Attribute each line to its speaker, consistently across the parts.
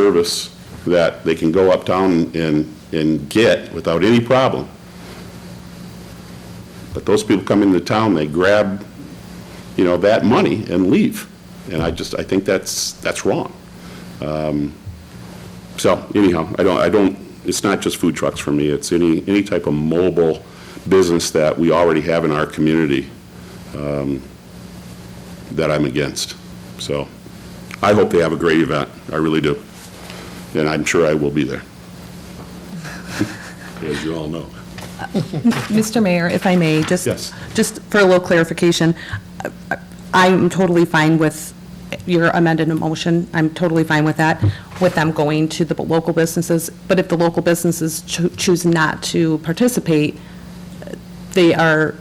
Speaker 1: service that they can go uptown and, and get without any problem. But those people come into town, they grab, you know, that money and leave. And I just, I think that's, that's wrong. Um, So anyhow, I don't, I don't, it's not just food trucks for me, it's any, any type of mobile business that we already have in our community um, that I'm against. So I hope they have a great event, I really do. And I'm sure I will be there. As you all know.
Speaker 2: Mr. Mayor, if I may, just,
Speaker 1: Yes.
Speaker 2: just for a little clarification, I- I'm totally fine with your amended motion, I'm totally fine with that, with them going to the local businesses, but if the local businesses cho- choose not to participate, they are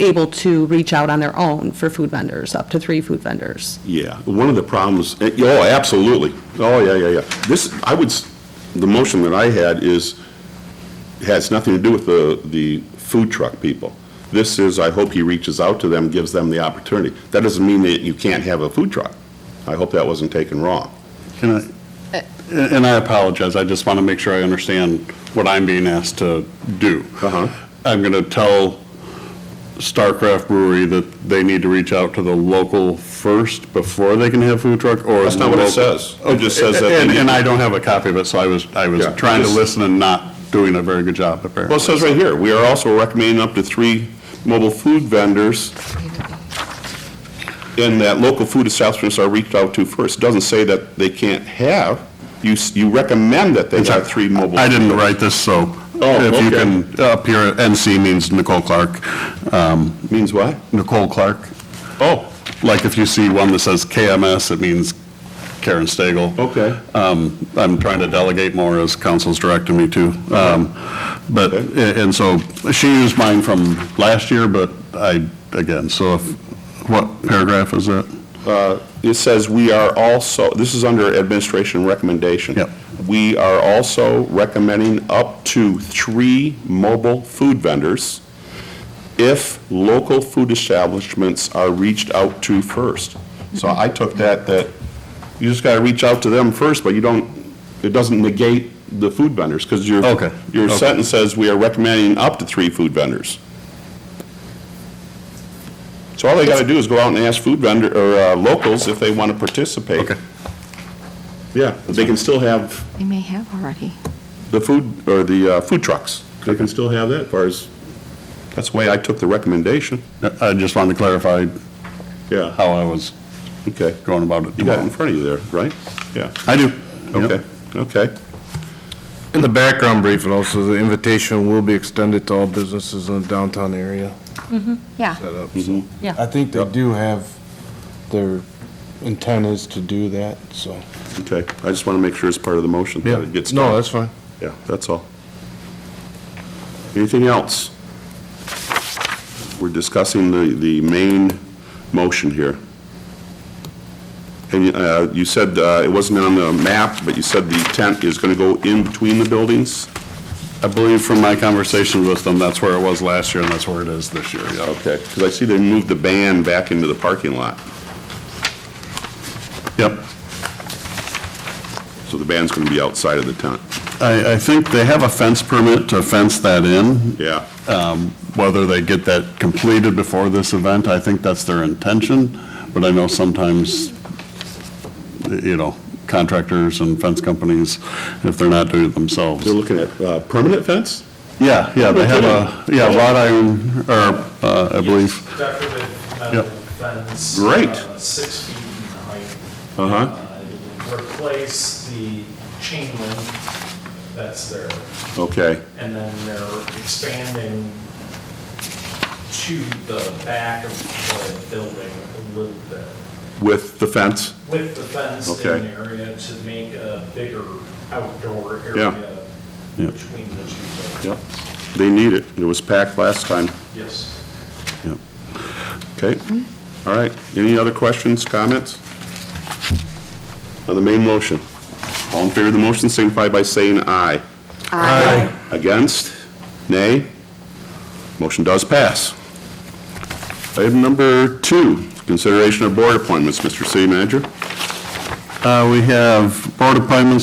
Speaker 2: able to reach out on their own for food vendors, up to three food vendors.
Speaker 1: Yeah, one of the problems, eh, oh, absolutely. Oh, yeah, yeah, yeah. This, I would, s- the motion that I had is, has nothing to do with the, the food truck people. This is, I hope he reaches out to them, gives them the opportunity. That doesn't mean that you can't have a food truck. I hope that wasn't taken wrong.
Speaker 3: Can I, and I apologize, I just want to make sure I understand what I'm being asked to do.
Speaker 1: Uh-huh.
Speaker 3: I'm going to tell Starcraft Brewery that they need to reach out to the local first before they can have food truck, or?
Speaker 1: That's not what it
Speaker 3: local-
Speaker 1: says. It just says that they
Speaker 3: And,
Speaker 1: need-
Speaker 3: and I don't have a copy of it, so I was, I was
Speaker 1: Yeah.
Speaker 3: trying to
Speaker 1: Just-
Speaker 3: listen and not doing a very good job, apparently.
Speaker 1: Well, it says right here, we are also recommending up to three mobile food vendors in that local food establishments are reached out to first. It Doesn't say that they can't have, you, s- you recommend that they have three mobile.
Speaker 3: I didn't write this, so.
Speaker 1: Oh,
Speaker 3: If
Speaker 1: okay.
Speaker 3: you can, up here, NC means Nicole Clark. Um,
Speaker 1: Means what?
Speaker 3: Nicole Clark.
Speaker 1: Oh,
Speaker 3: Like if you see one that says KMS, it means Karen Stagel.
Speaker 1: Okay.
Speaker 3: Um, I'm trying to delegate more as council's directing me to. Um, But, a- and so she used mine from last year, but I, again, so if, what paragraph is that?
Speaker 1: uh, it says we are also, this is under administration recommendation.
Speaker 3: Yep.
Speaker 1: We are also recommending up to three mobile food vendors if local food establishments are reached out to first. So I took that, that you just gotta reach out to them first, but you don't, it doesn't negate the food vendors, because your.
Speaker 3: Okay,
Speaker 1: Your
Speaker 3: okay.
Speaker 1: sentence says we are recommending up to three food vendors. So all they gotta do is go out and ask food vendor, or uh, locals if they wanna participate.
Speaker 3: Okay.
Speaker 1: Yeah, they can still have
Speaker 4: They may have already.
Speaker 1: the food, or the uh, food trucks. They can still have that, as far as, that's the way I took the recommendation.
Speaker 3: I just wanted to clarify
Speaker 1: Yeah,
Speaker 3: how I was
Speaker 1: okay.
Speaker 3: going about it
Speaker 1: You got it in
Speaker 3: tomorrow.
Speaker 1: front of you there, right? Yeah,
Speaker 3: I do. Yep.
Speaker 1: okay, okay.
Speaker 5: In the background brief, and also the invitation will be extended to all businesses in the downtown area.
Speaker 4: Yeah.
Speaker 5: set up.
Speaker 2: Yeah.
Speaker 5: I think they do have, their intent is to do that, so.
Speaker 1: Okay, I just want to make sure it's part of the motion. that it gets
Speaker 5: No,
Speaker 1: done.
Speaker 5: that's fine.
Speaker 1: Yeah, that's all. Anything else? We're discussing the, the main motion here. And uh, you said uh, it wasn't on the map, but you said the tent is going to go in between the buildings?
Speaker 3: I believe from my conversation with them, that's where it was last year and that's where it is this year. yeah.
Speaker 1: Okay, because I see they moved the band back into the parking lot,
Speaker 3: Yep.
Speaker 1: so the band's going to be outside of the tent.
Speaker 3: I, I think they have a fence permit to fence that in.
Speaker 1: Yeah,
Speaker 3: Um, Whether they get that completed before this event, I think that's their intention, but I know sometimes, you know, contractors and fence companies, if they're not doing it themselves.
Speaker 1: they're looking at uh, permanent fence?
Speaker 3: Yeah, yeah, they have a, yeah, wrought iron, or, uh, I believe,
Speaker 6: Decorative metal
Speaker 3: Yep.
Speaker 6: fence.
Speaker 1: Great.
Speaker 6: uh, Six feet in height.
Speaker 1: Uh-huh.
Speaker 6: Uh, Replace the chain link that's there,
Speaker 1: Okay,
Speaker 6: and then they're expanding to the back of the building a little bit
Speaker 1: with the fence?
Speaker 6: with the fence
Speaker 1: Okay.
Speaker 6: in the area to make a bigger outdoor area
Speaker 3: Yeah.
Speaker 6: between the two buildings.
Speaker 1: Yep, they need it. It was packed last time.
Speaker 6: Yes.
Speaker 3: yeah.
Speaker 1: Okay, all right. Any other questions, comments? On the main motion? All in favor of the motion signify by saying aye. Aye. Against? Nay? Motion does pass. Item number two, consideration of board appointments. Mr. City Manager?
Speaker 3: Uh, We have board appointments